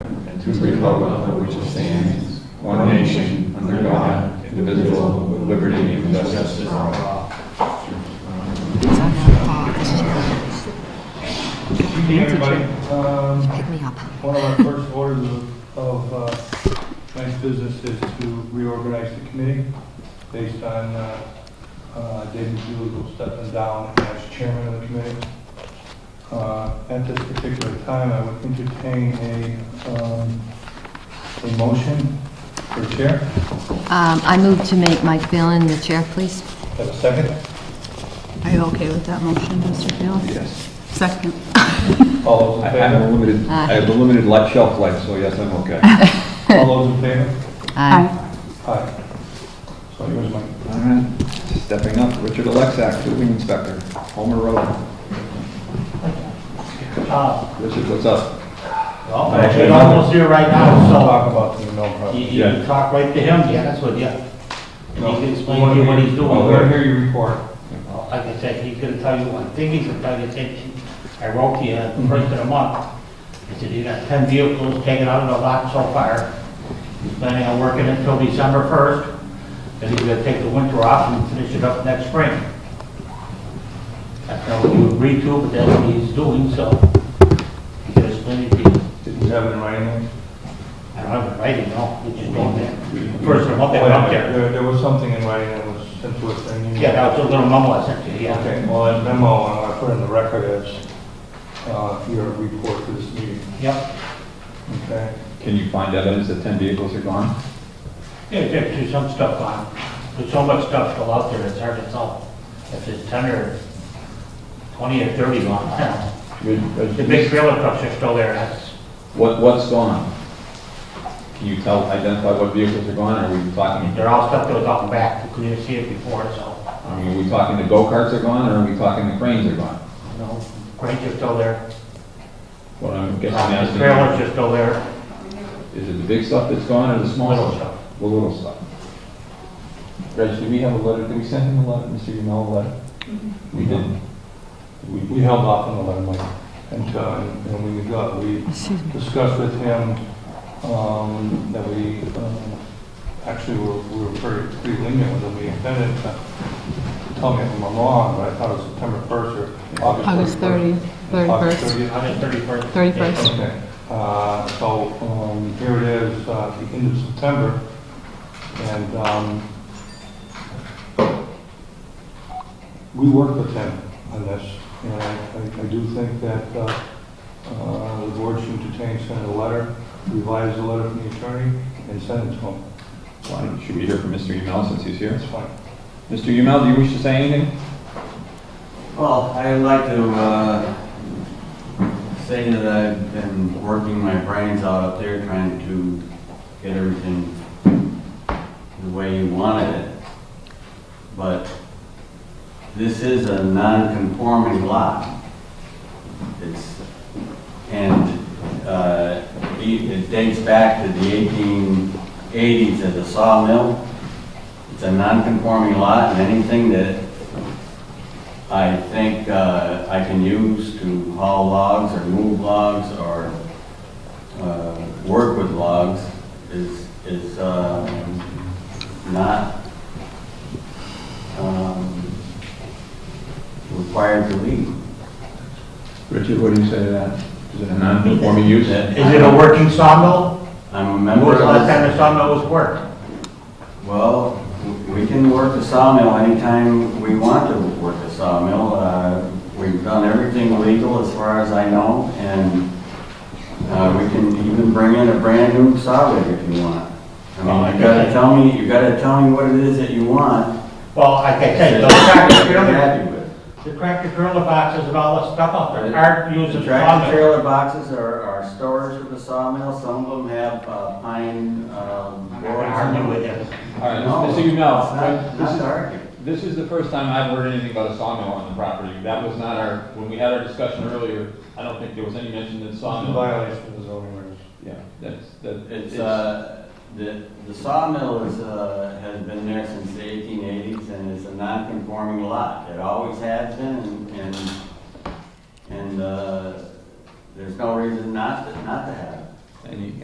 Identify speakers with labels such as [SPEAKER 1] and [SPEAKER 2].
[SPEAKER 1] to the republic for which it stands, one nation, under God, indivisible, with liberty and justice for all.
[SPEAKER 2] Hey, everybody. Um,
[SPEAKER 3] Pick me up.
[SPEAKER 2] One of our first orders of- of uh, nice business is to reorganize the committee based on uh, uh, David Bugle stepping down as chairman of the committee. Uh, At this particular time, I would entertain a um, a motion for chair.
[SPEAKER 3] Um, I move to make Mike Phelan the chair, please.
[SPEAKER 2] Have a second?
[SPEAKER 4] Are you okay with that motion, Mr. Fields?
[SPEAKER 1] Yes.
[SPEAKER 4] Second.
[SPEAKER 2] All those
[SPEAKER 1] I
[SPEAKER 2] in
[SPEAKER 1] have a
[SPEAKER 2] favor?
[SPEAKER 1] limited, I have a limited life, shelf life, so yes, I'm okay.
[SPEAKER 2] All those in favor?
[SPEAKER 3] Aye.
[SPEAKER 2] Aye. So here's my,
[SPEAKER 1] All right, stepping up, Richard Alexak, building inspector, Homer Road. Richard, what's up?
[SPEAKER 5] Well, Richard Uh, almost here right now,
[SPEAKER 2] talk about the no problem.
[SPEAKER 5] so you you can talk right to him, yeah, that's what, yeah. And he can explain to you what he's doing.
[SPEAKER 2] I want to hear you report.
[SPEAKER 5] Well, Like I said, he's gonna tell you one thing, he's gonna tell you, take, I wrote to you the first of the month. He said, you got ten vehicles taken out of the lot so far. He's planning on working until December first, then he's gonna take the winter off and finish it up next spring. That's not what you agreed to, but that's what he's doing, so he's gonna explain it to you.
[SPEAKER 2] Did you have it in writing?
[SPEAKER 5] I don't have it writing, no, it's just going there. First of all, they went up there.
[SPEAKER 2] There, there was something in writing that was sent to us, and you...
[SPEAKER 5] Yeah, that was a little mumble I sent you, yeah.
[SPEAKER 2] Okay, well, that memo, I want to put in the record as, uh, your report for this meeting,
[SPEAKER 5] Yep.
[SPEAKER 2] okay?
[SPEAKER 1] Can you find evidence that 10 vehicles are gone?
[SPEAKER 5] Yeah, there's too some stuff on, there's so much stuff still out there, it's hard to tell if it's ten or twenty or thirty long. The big trailer trucks are still there, that's,
[SPEAKER 1] What, what's gone? Can you tell, identify what vehicles are gone, are we talking,
[SPEAKER 5] they're all stuff that was out and back, you couldn't even see it before, so,
[SPEAKER 1] I mean, are we talking the go-karts are gone, or are we talking the cranes are gone?
[SPEAKER 5] you know, cranes are still there.
[SPEAKER 1] What I'm guessing
[SPEAKER 5] Uh,
[SPEAKER 1] asking
[SPEAKER 5] Trailers are still there,
[SPEAKER 1] is, is it the big stuff that's gone, or the small
[SPEAKER 5] little
[SPEAKER 1] stuff?
[SPEAKER 5] stuff.
[SPEAKER 1] The little stuff. Reg, did we have a letter, did we send him a letter, Mr. Yumel, a letter? We did.
[SPEAKER 2] We held off on the letter, Mike, until, and we got, we
[SPEAKER 3] Excuse me.
[SPEAKER 2] discussed with him, um, that we, um, actually, we were, we were pretty, pretty lenient with him, we intended to tell me if I'm wrong, but I thought it was September first or
[SPEAKER 4] August
[SPEAKER 2] August
[SPEAKER 4] 30,
[SPEAKER 2] thirty.
[SPEAKER 4] 31st.
[SPEAKER 5] Hundred thirty-first.
[SPEAKER 4] 31st.
[SPEAKER 2] Okay, uh, so, um, here it is, uh, the end of September, and, um, we worked with him on this, and I, I- I do think that, uh, uh, the board should entertain sending a letter, revise the letter from the attorney, and send it to him,
[SPEAKER 1] Why, should we hear from Mr. Yumel since he's here?
[SPEAKER 2] that's fine.
[SPEAKER 1] Mr. Yumel, do you wish to say anything?
[SPEAKER 6] Well, I'd like to uh, say that I've been working my brains out up there trying to get everything the way you wanted it. But this is a non-conforming lot. It's, and uh, it it dates back to the 1880s as a sawmill. It's a non-conforming lot, and anything that I think uh, I can use to haul logs or move logs or uh, work with logs is, is uh, not um, required to leave.
[SPEAKER 1] Richard, what do you say to that? Is it a non-conforming use?
[SPEAKER 6] That-
[SPEAKER 5] Is it a working sawmill?
[SPEAKER 6] I'm a
[SPEAKER 5] When
[SPEAKER 6] member
[SPEAKER 5] was the
[SPEAKER 6] of
[SPEAKER 5] last
[SPEAKER 6] this.
[SPEAKER 5] time the sawmill was worked?
[SPEAKER 6] Well, w- we can work the sawmill anytime we want to work the sawmill. Uh, We've done everything legal as far as I know, and uh, we can even bring in a brand new saw rig if you want. I mean, you gotta tell me, you gotta tell me what it is that you want.
[SPEAKER 5] Well, like I said,
[SPEAKER 6] that
[SPEAKER 5] the
[SPEAKER 6] you're
[SPEAKER 5] tractor trailer
[SPEAKER 6] happy with.
[SPEAKER 5] The tractor trailer boxes and all that stuff out there aren't used
[SPEAKER 6] The
[SPEAKER 5] as
[SPEAKER 6] tractor
[SPEAKER 5] sawmill.
[SPEAKER 6] trailer boxes are, are storage for the sawmill. Some of them have uh, pine, um, boards.
[SPEAKER 5] I knew it is.
[SPEAKER 1] All right,
[SPEAKER 6] No,
[SPEAKER 1] Mr. Yumel,
[SPEAKER 6] It's not,
[SPEAKER 1] this
[SPEAKER 6] not
[SPEAKER 1] is-
[SPEAKER 6] to argue.
[SPEAKER 1] This is the first time I've heard anything about a sawmill on the property. That was not our, when we had our discussion earlier, I don't think there was any mention that
[SPEAKER 2] It's a
[SPEAKER 1] sawmill.
[SPEAKER 2] violation of the zoning ordinance.
[SPEAKER 1] Yeah, that's, that.
[SPEAKER 6] It's, uh, the, the sawmill is, uh, has been there since the eighteen eighties and is a non-conforming lot. It always has been and, and, and, uh, there's no reason not to, not to have it.
[SPEAKER 1] And you,